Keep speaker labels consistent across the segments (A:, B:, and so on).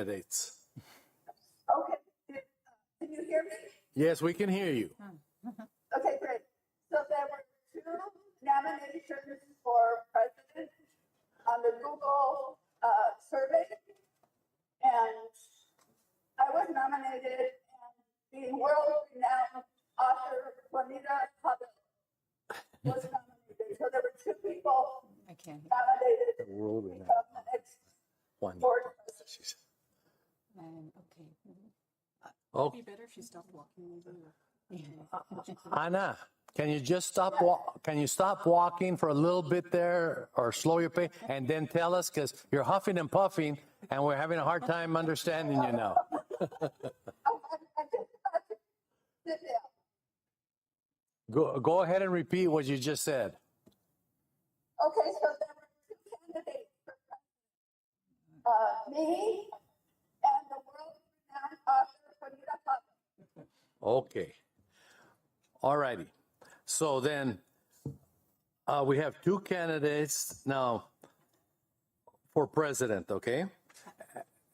A: candidates.
B: Okay, uh, can you hear me?
A: Yes, we can hear you.
B: Okay, great. So there were two nominations for president on the Google uh, survey. And I was nominated and the world renowned author Juanita Hubbard was nominated. So there were two people
C: I can't.
B: nominated
A: The world
B: to
A: renowned
B: become the next
A: one.
B: board president.
A: She's-
C: Um, okay.
A: Oh,
C: Be better if she stopped walking.
A: Anna, can you just stop? Wa- can you stop walking for a little bit there, or slow your pace, and then tell us because you're huffing and puffing, and we're having a hard time understanding you now.
B: I'm, I'm I'm just about to sit down.
A: Go, go ahead and repeat what you just said.
B: Okay, so there were two candidates for president. Uh, me and the world-renowned author Juanita Hubbard.
A: Okay. All righty. So then uh, we have two candidates now for president, okay?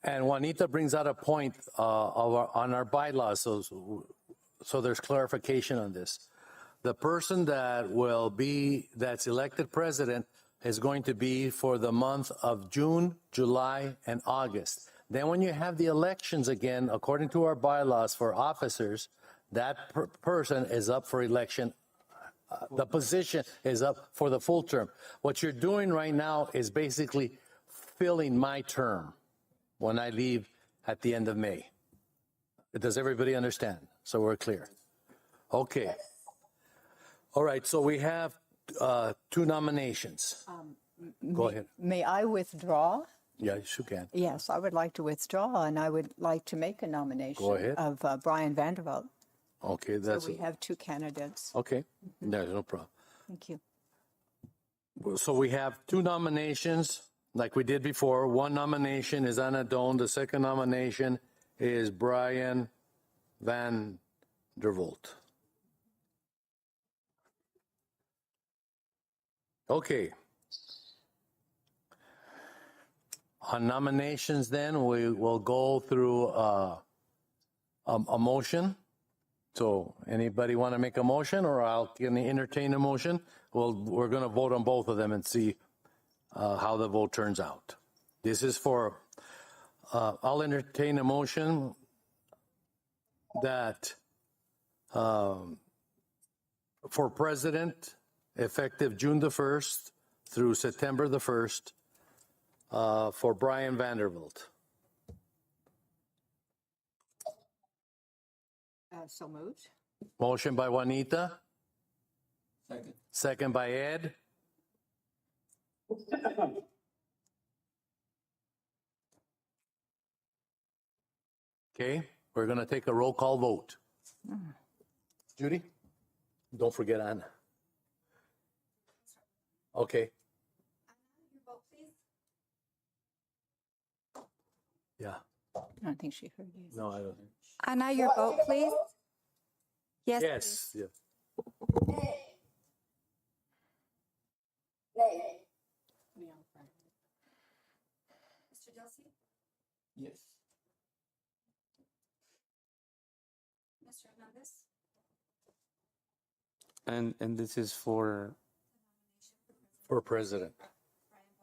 A: And Juanita brings out a point uh, of our, on our bylaws, so, so there's clarification on this. The person that will be, that's elected president is going to be for the month of June, July, and August. Then when you have the elections again, according to our bylaws for officers, that per- person is up for election uh, the position is up for the full term. What you're doing right now is basically filling my term when I leave at the end of May. Does everybody understand? So we're clear. Okay. All right. So we have uh, two nominations. Go ahead.
C: May I withdraw?
A: Yes, you can.
C: Yes, I would like to withdraw, and I would like to make a nomination
A: Go ahead.
C: of uh, Brian Vanderbilt.
A: Okay. That's
C: We have two candidates.
A: okay. There's no problem.
C: Thank you.
A: So we have two nominations, like we did before. One nomination is Anna Doan. The second nomination is Brian Van Der Volt. Okay. On nominations, then we will go through uh, a, a motion. So anybody want to make a motion or I'll can entertain a motion? Well, we're going to vote on both of them and see uh, how the vote turns out. This is for, uh, I'll entertain a motion that um, for president, effective June the 1st through September the 1st, uh, for Brian Vanderbilt.
C: Uh, so moved.
A: Motion by Juanita,
D: Second.
A: second by Ed. Okay, we're gonna take a roll call vote. Judy? Don't forget Anna. Okay, yeah,
C: I don't think she heard you.
A: no, I don't.
E: Anna, your vote, please. Yes.
A: Yes, yeah.
B: Nay. Nay.
E: Mr. Delsey,
D: Yes.
E: Mr. Hernandez,
D: And, and this is for,
A: for president.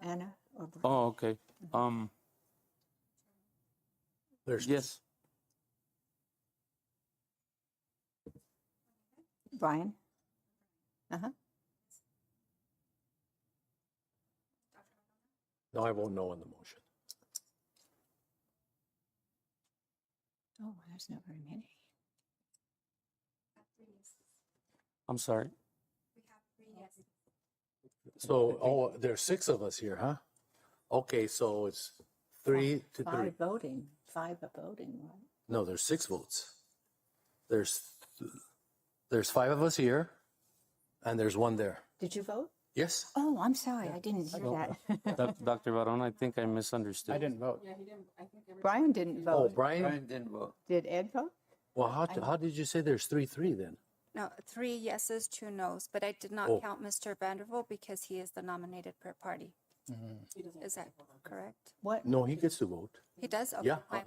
C: Anna? or Bri-
D: oh, okay, um,
A: There's,
D: yes,
C: Brian? Uh-huh.
A: no, I won't know on the motion.
C: Oh, there's not very many.
D: I'm sorry.
A: So, oh, there's six of us here, huh? Okay, so it's three to three.
C: Five voting, five are voting, right?
A: No, there's six votes. There's there's five of us here, and there's one there.
C: Did you vote?
A: Yes.
E: Oh, I'm sorry. I didn't hear that.
D: Doc- Dr. Barone, I think I misunderstood.
F: vote.
C: Brian didn't
A: Oh,
C: vote.
A: Brian.
D: didn't vote.
C: Did Ed vote?
A: Well, how how did you say there's three three then?
E: No, three yeses, two nos, but I did not
A: Oh.
E: count Mr. Vanderbilt because he is the nominated per party. Is that correct?
A: No, he gets to vote.
E: He does? Okay,
A: Yeah,
E: my
A: uh-huh.